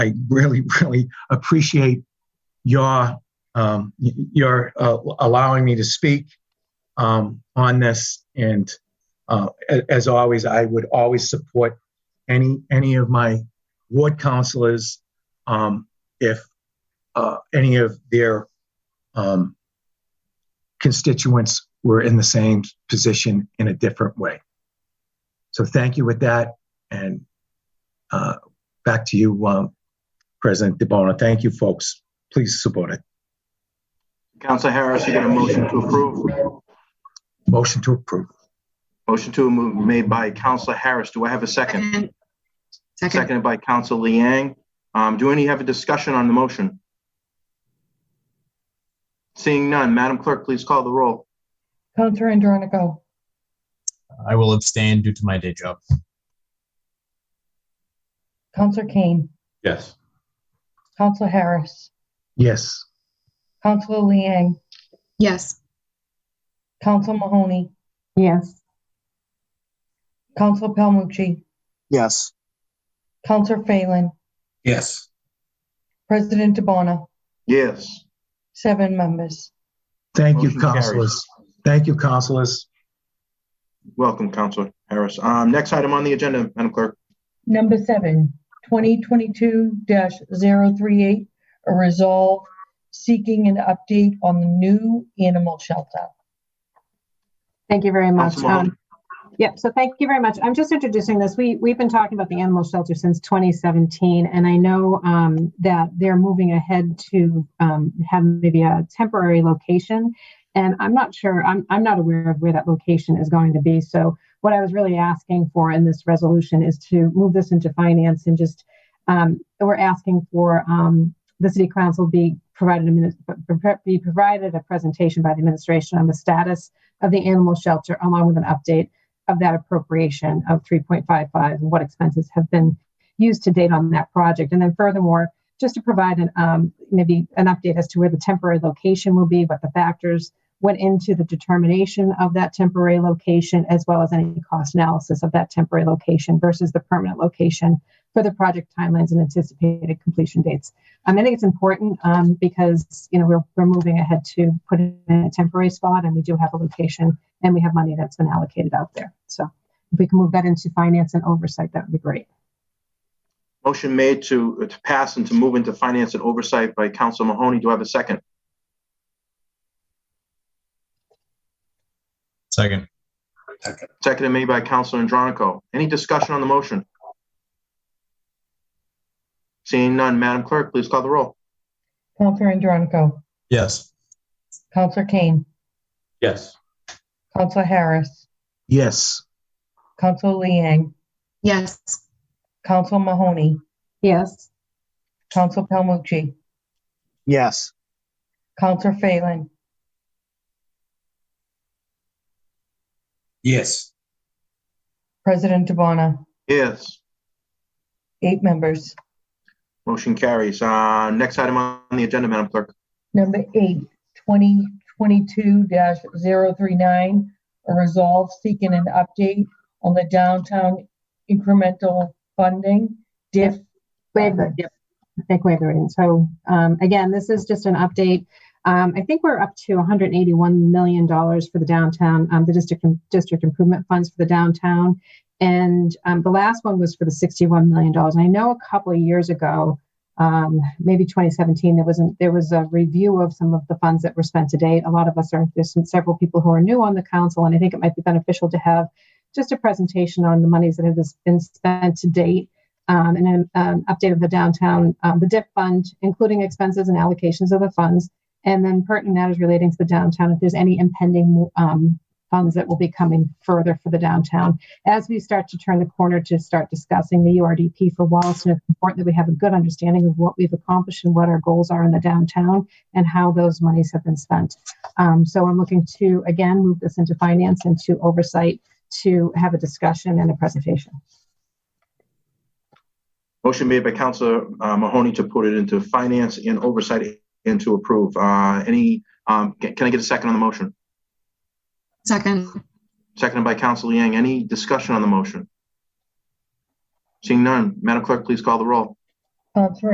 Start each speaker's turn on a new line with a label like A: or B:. A: I really, really appreciate your um, y- your uh, allowing me to speak um, on this. And uh, a- as always, I would always support any any of my ward councilors um, if uh, any of their um, constituents were in the same position in a different way. So thank you with that, and uh, back to you, um, President DeBona. Thank you, folks. Please support it.
B: Counselor Harris, you got a motion to approve?
A: Motion to approve.
B: Motion to move made by Counselor Harris. Do I have a second?
C: Second. Second.
B: Seconded by Counselor Liang. Um, do any have a discussion on the motion? Seeing none, Madam Clerk, please call the roll.
D: Counselor Andronico,
E: I will abstain due to my day job.
D: Counselor Kane,
F: Yes.
D: Counselor Harris,
A: Yes.
D: Counselor Liang,
C: Yes.
D: Counselor Mahoney. Yes. Counselor Palmucci,
G: Yes.
D: Counselor Phelan,
F: Yes.
D: President DeBona,
B: Yes.
D: seven members.
A: Thank you,
B: Motion carries.
A: counselors. Thank you, counselors.
B: Welcome, Counselor Harris. Um, next item on the agenda, Madam Clerk.
D: Number seven, 2022-038, a resolve seeking an update on the new animal shelter.
H: Thank you very much.
B: Council Mahoney.
H: Um, Yep, so thank you very much. I'm just introducing this. We, we've been talking about the animal shelter since 2017, and I know um, that they're moving ahead to um, have maybe a temporary location. And I'm not sure, I'm, I'm not aware of where that location is going to be. So what I was really asking for in this resolution is to move this into finance and just, um, we're asking for um, the city council be provided a minute, be provided a presentation by the administration on the status of the animal shelter, along with an update of that appropriation of 3.55 and what expenses have been used to date on that project. And then furthermore, just to provide an, um, maybe an update as to where the temporary location will be, what the factors went into the determination of that temporary location, as well as any cost analysis of that temporary location versus the permanent location for the project timelines and anticipated completion dates. Um, I think it's important um, because you know we're, we're moving ahead to put it in a temporary spot, and we do have a location, and we have money that's been allocated out there. So if we can move that into finance and oversight, that would be great.
B: Motion made to, to pass and to move into finance and oversight by Counselor Mahoney. Do I have a second?
E: Second.
B: Seconded made by Counselor Andronico. Any discussion on the motion? Seeing none, Madam Clerk, please call the roll.
D: Counselor Andronico,
E: Yes.
D: Counselor Kane,
F: Yes.
D: Counselor Harris,
A: Yes.
D: Counselor Liang,
C: Yes.
D: Counselor Mahoney,
H: Yes.
D: Counselor Palmucci,
G: Yes.
D: Counselor Phelan,
F: Yes.
D: President Dubana,
B: Yes.
D: eight members.
B: Motion carries. Uh, Next item on the agenda, Madam Clerk.
D: Number eight, 2022-039, a resolve seeking an update on the downtown incremental funding, DIF.
H: Waive the, yep, I think waive the reading. So, um, again, this is just an update. Um, I think we're up to $181 million for the downtown, um, the district, district improvement funds for the downtown. And, um, the last one was for the $61 million. I know a couple of years ago, um, maybe 2017, there wasn't, there was a review of some of the funds that were spent to date. A lot of us are, there's some, several people who are new on the council, and I think it might be beneficial to have just a presentation on the monies that have been spent to date um, and an um, update of the downtown, um, the DIP fund, including expenses and allocations of the funds, and then pertinent matters relating to the downtown, if there's any impending um, funds that will be coming further for the downtown. As we start to turn the corner to start discussing the URDP for Wallaston, it's important that we have a good understanding of what we've accomplished and what our goals are in the downtown and how those monies have been spent. Um, so I'm looking to, again, move this into finance and to oversight to have a discussion and a presentation.
B: Motion made by Counselor uh, Mahoney to put it into finance and oversight and to approve. Uh, Any, um, ca- can I get a second on the motion?
C: Second.
B: Seconded by Counselor Yang. Any discussion on the motion? Seeing none, Madam Clerk, please call the roll.
D: Counselor